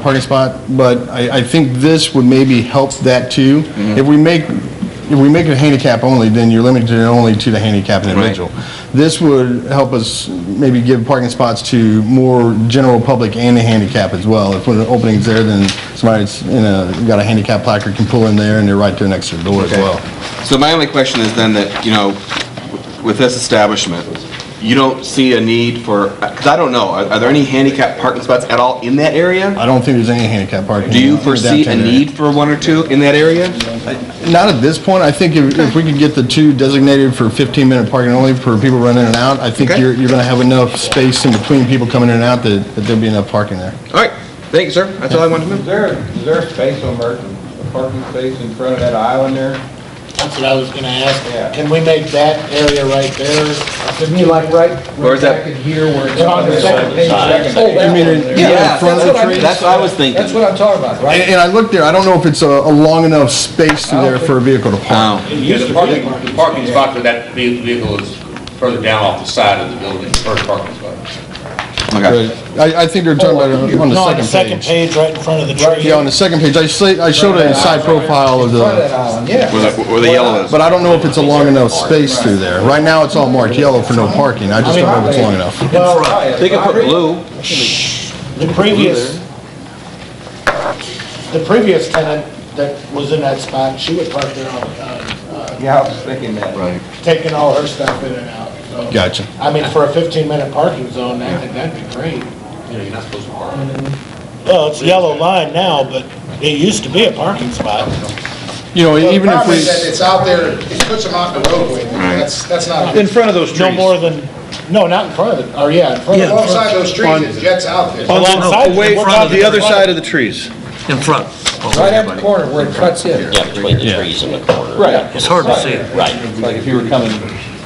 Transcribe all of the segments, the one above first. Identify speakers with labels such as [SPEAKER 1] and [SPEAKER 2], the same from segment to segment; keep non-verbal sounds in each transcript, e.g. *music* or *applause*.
[SPEAKER 1] parking spot, but I, I think this would maybe help that too.
[SPEAKER 2] Mm-hmm.
[SPEAKER 1] If we make, if we make it handicap only, then you're limited only to the handicap individual. This would help us maybe give parking spots to more general public and the handicap as well. If one of the opening's there, then somebody's in a, got a handicap placard can pull in there and they're right there next to the door as
[SPEAKER 2] Okay.
[SPEAKER 1] well.
[SPEAKER 2] So my only question is then that, you know, with this establishment, you don't see a need for, because I don't know, are are there any handicap parking spots at all in that area?
[SPEAKER 1] I don't think there's any handicap parking.
[SPEAKER 2] Do
[SPEAKER 1] in
[SPEAKER 2] you
[SPEAKER 1] the
[SPEAKER 2] foresee a
[SPEAKER 1] downtown area.
[SPEAKER 2] need for one or two in that area?
[SPEAKER 1] Not at this point. I think if, if we could get the two designated for 15-minute parking only for people running in and out, I think
[SPEAKER 2] Okay.
[SPEAKER 1] you're, you're gonna have enough space in between people coming in and out that, that there'll be enough parking there.
[SPEAKER 2] All right, thank you, sir. That's all I wanted to
[SPEAKER 3] Is
[SPEAKER 2] know.
[SPEAKER 3] there, is there a space on Merton, a parking space in front of that island there?
[SPEAKER 4] That's what I was gonna ask.
[SPEAKER 3] Yeah.
[SPEAKER 4] Can we make that area right there?
[SPEAKER 5] To me, like right,
[SPEAKER 2] Where's
[SPEAKER 5] right
[SPEAKER 2] that?
[SPEAKER 5] back in here where it's
[SPEAKER 4] It's on
[SPEAKER 5] on the
[SPEAKER 4] the
[SPEAKER 5] second
[SPEAKER 3] side.
[SPEAKER 5] page.
[SPEAKER 3] Side.
[SPEAKER 5] Oh, that
[SPEAKER 1] You mean
[SPEAKER 5] one
[SPEAKER 1] in-
[SPEAKER 5] there.
[SPEAKER 1] yeah,
[SPEAKER 2] Yeah,
[SPEAKER 1] in front
[SPEAKER 5] that's
[SPEAKER 1] of the
[SPEAKER 5] what I-
[SPEAKER 1] trees?
[SPEAKER 2] that's what I was
[SPEAKER 5] That's what
[SPEAKER 2] thinking.
[SPEAKER 5] I'm talking about,
[SPEAKER 1] And,
[SPEAKER 5] right?
[SPEAKER 1] and I looked there, I don't know if it's a, a long enough space through
[SPEAKER 5] I don't
[SPEAKER 1] there for a vehicle to park.
[SPEAKER 2] Oh,
[SPEAKER 6] There's a parking, parking spot for that ve- vehicle is further down off the side of the building, first parking spot.
[SPEAKER 2] okay.
[SPEAKER 1] But I, I think they're talking about it on
[SPEAKER 4] Oh, No, on
[SPEAKER 1] the
[SPEAKER 4] the
[SPEAKER 1] second
[SPEAKER 4] second
[SPEAKER 1] page.
[SPEAKER 4] page, right in front of the tree.
[SPEAKER 1] Yeah, on the second page. I say, I showed a side profile of
[SPEAKER 5] Part of that
[SPEAKER 1] the,
[SPEAKER 5] island, yeah.
[SPEAKER 2] Where the, where the yellow is.
[SPEAKER 1] but I don't know if it's a long enough space through there. Right now, it's all marked yellow for no parking. I just don't know if it's long enough.
[SPEAKER 4] Well,
[SPEAKER 2] They could put blue.
[SPEAKER 4] the previous, the previous tenant that was in that spot, she would park there all the time,
[SPEAKER 3] Yeah, I was thinking that.
[SPEAKER 2] Right.
[SPEAKER 4] uh, taking all her stuff in and out, so.
[SPEAKER 1] Gotcha.
[SPEAKER 4] I mean, for a fifteen-minute parking zone, I think that'd be great.
[SPEAKER 6] You know, you're not supposed to park.
[SPEAKER 4] Well, it's yellow line now, but it used to be a parking spot.
[SPEAKER 1] You know,
[SPEAKER 7] Well,
[SPEAKER 1] even
[SPEAKER 7] the
[SPEAKER 1] if
[SPEAKER 7] problem is that
[SPEAKER 1] we,
[SPEAKER 7] it's out there, it puts them out in the roadway, that's, that's not,
[SPEAKER 8] In front of those
[SPEAKER 4] No
[SPEAKER 8] trees.
[SPEAKER 4] more than, no, not in front of it, or yeah, in front of it.
[SPEAKER 7] alongside those trees, it jets out there.
[SPEAKER 8] On the-
[SPEAKER 4] Alongside,
[SPEAKER 8] Away
[SPEAKER 4] we're
[SPEAKER 8] from
[SPEAKER 4] talking
[SPEAKER 8] the other
[SPEAKER 4] about-
[SPEAKER 8] side of the trees.
[SPEAKER 9] in front.
[SPEAKER 5] Right at the corner where it cuts in.
[SPEAKER 10] Yeah, between the
[SPEAKER 1] Yeah.
[SPEAKER 10] trees and the corner.
[SPEAKER 5] Right.
[SPEAKER 9] It's hard to see it.
[SPEAKER 10] Right.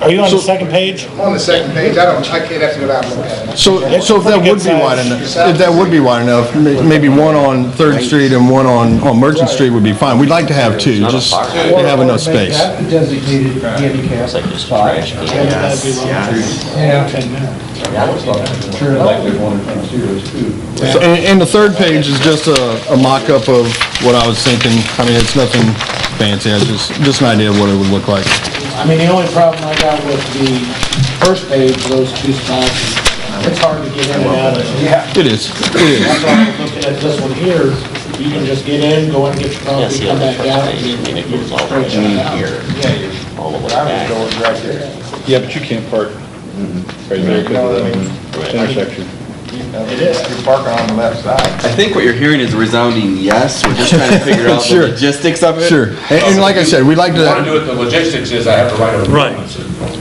[SPEAKER 4] Are you on the second page?
[SPEAKER 7] On the second page, I don't, I can't have to go down and look at it.
[SPEAKER 1] so, so if that
[SPEAKER 4] pretty
[SPEAKER 1] would
[SPEAKER 4] good
[SPEAKER 1] be wide
[SPEAKER 4] size.
[SPEAKER 1] enough, if that would be wide enough, may- maybe one on Third Street and one on, on Merchant Street would be fine. We'd like to have two, just to have enough
[SPEAKER 5] Make
[SPEAKER 1] space.
[SPEAKER 5] that the designated handicap spot.
[SPEAKER 4] That'd be long.
[SPEAKER 5] Yeah. Sure, like there's one
[SPEAKER 1] So- And, and the third page is just a, a mock-up of what I was thinking. I mean, it's nothing fancy, it's just, just an idea of what it would look like.
[SPEAKER 4] I mean, the only problem I got with the first page, those two spots, it's hard to get in and out of. Yeah.
[SPEAKER 1] It is, it is.
[SPEAKER 4] That's why I'm looking at this one here, you can just get in, go and get your
[SPEAKER 10] That's
[SPEAKER 4] coffee,
[SPEAKER 10] the
[SPEAKER 4] come
[SPEAKER 10] other
[SPEAKER 4] back out,
[SPEAKER 10] first page,
[SPEAKER 4] and
[SPEAKER 10] and
[SPEAKER 4] then
[SPEAKER 10] it goes all the way
[SPEAKER 4] straight
[SPEAKER 10] down
[SPEAKER 4] out.
[SPEAKER 10] here,
[SPEAKER 3] Yeah, you're,
[SPEAKER 10] all the way
[SPEAKER 3] I was
[SPEAKER 10] back.
[SPEAKER 3] going right there.
[SPEAKER 8] Yeah, but you can't park right there because of the intersection.
[SPEAKER 3] It is. You're parking on the left side.
[SPEAKER 2] I think what you're hearing is a resounding yes. We're just
[SPEAKER 1] *laughs*
[SPEAKER 2] trying to figure out
[SPEAKER 1] Sure.
[SPEAKER 2] the logistics of it.
[SPEAKER 1] Sure. And, and like I said, we'd like
[SPEAKER 6] If you want to
[SPEAKER 1] to,
[SPEAKER 6] do it, the logistics is I have to write a.
[SPEAKER 9] Right.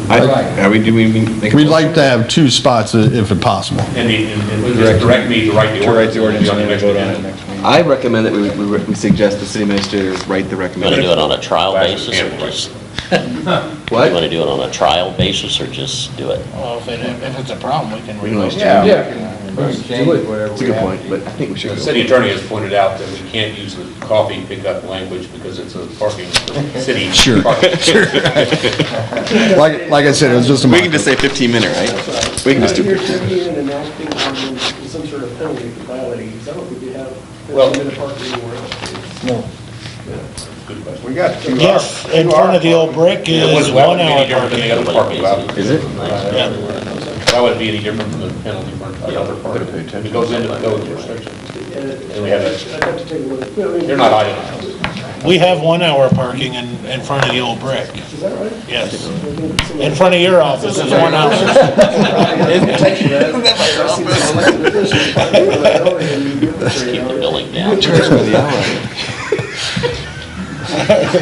[SPEAKER 2] I- Are we, do we make? a
[SPEAKER 1] we'd
[SPEAKER 2] motion?
[SPEAKER 1] like to have two spots i- if possible.
[SPEAKER 6] And the, and- and just direct me to write the
[SPEAKER 8] To
[SPEAKER 6] ordinance.
[SPEAKER 8] write the ordinance and
[SPEAKER 6] It'll be on
[SPEAKER 8] then
[SPEAKER 6] the next
[SPEAKER 8] vote on it
[SPEAKER 6] agenda.
[SPEAKER 8] next week.
[SPEAKER 2] I recommend that we, we we suggest the city administrator write the
[SPEAKER 10] You want to do
[SPEAKER 2] recommendation.
[SPEAKER 10] it on a trial basis or
[SPEAKER 6] Yeah.
[SPEAKER 10] just, you want
[SPEAKER 2] What?
[SPEAKER 10] to do it on a trial basis or just do it?
[SPEAKER 4] Well, if it, if it's a problem, we can
[SPEAKER 2] We can
[SPEAKER 4] reload.
[SPEAKER 2] always change.
[SPEAKER 3] Yeah.
[SPEAKER 5] Yeah.
[SPEAKER 3] We can change whatever
[SPEAKER 2] It's a
[SPEAKER 3] we
[SPEAKER 2] good
[SPEAKER 3] have.
[SPEAKER 2] point, but I think we should.
[SPEAKER 6] The
[SPEAKER 2] go-
[SPEAKER 6] city attorney has pointed out that we can't use the coffee pickup language because it's a parking, city.
[SPEAKER 1] Sure.
[SPEAKER 6] parking.
[SPEAKER 1] Like, like I said, it was just a
[SPEAKER 2] We
[SPEAKER 1] mock-up.
[SPEAKER 2] can just say 15 minute, right? We can just do.
[SPEAKER 11] If you're coming in and acting on some sort of penalty for violating, because I don't think we have
[SPEAKER 3] Well-
[SPEAKER 11] 15-minute parking anywhere else.
[SPEAKER 3] We got two.
[SPEAKER 4] Yes, in front of the old brick
[SPEAKER 6] uh, It
[SPEAKER 4] is
[SPEAKER 6] wouldn't, that
[SPEAKER 4] one
[SPEAKER 6] wouldn't be any
[SPEAKER 4] hour
[SPEAKER 6] different than
[SPEAKER 4] parking.
[SPEAKER 6] the other parking lot.
[SPEAKER 2] Is it?
[SPEAKER 6] That wouldn't be any different from the penalty for another parking. It goes into the code restriction. And we have
[SPEAKER 11] uh, I'd
[SPEAKER 6] that,
[SPEAKER 11] have to take a look. Yeah, I mean-
[SPEAKER 6] they're not itemized.
[SPEAKER 4] We have one hour parking in, in front of the old brick,
[SPEAKER 11] Is that right?
[SPEAKER 4] yes. In front of your office is one hour.
[SPEAKER 10] Just keep the building down.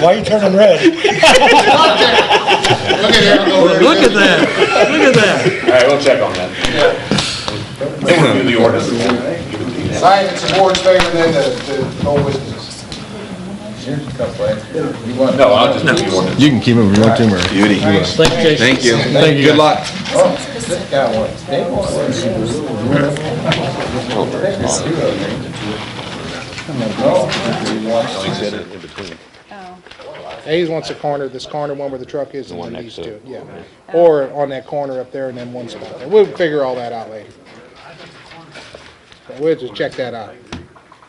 [SPEAKER 4] Why are you turning red?
[SPEAKER 7] Look at it, go there.
[SPEAKER 9] Look at that, look at that.
[SPEAKER 6] All right, we'll check on that. We'll do the ordinance. Give it to you.
[SPEAKER 7] Science and support favor then the, the old business.
[SPEAKER 3] Here's a couple extra. You want-
[SPEAKER 6] No, I'll just do the ordinance.
[SPEAKER 1] You can keep it if you want to, Murray.
[SPEAKER 2] Beauty.
[SPEAKER 9] Thank you, Jason.
[SPEAKER 2] Thank you.
[SPEAKER 1] Thank you.
[SPEAKER 2] Good luck.
[SPEAKER 3] Oh, This guy wants, they want.
[SPEAKER 7] Hayes wants a corner, this corner one where the truck is and then these two, yeah. Or on that corner up there and then one spot there. We'll figure all that out later. We'll just check that out.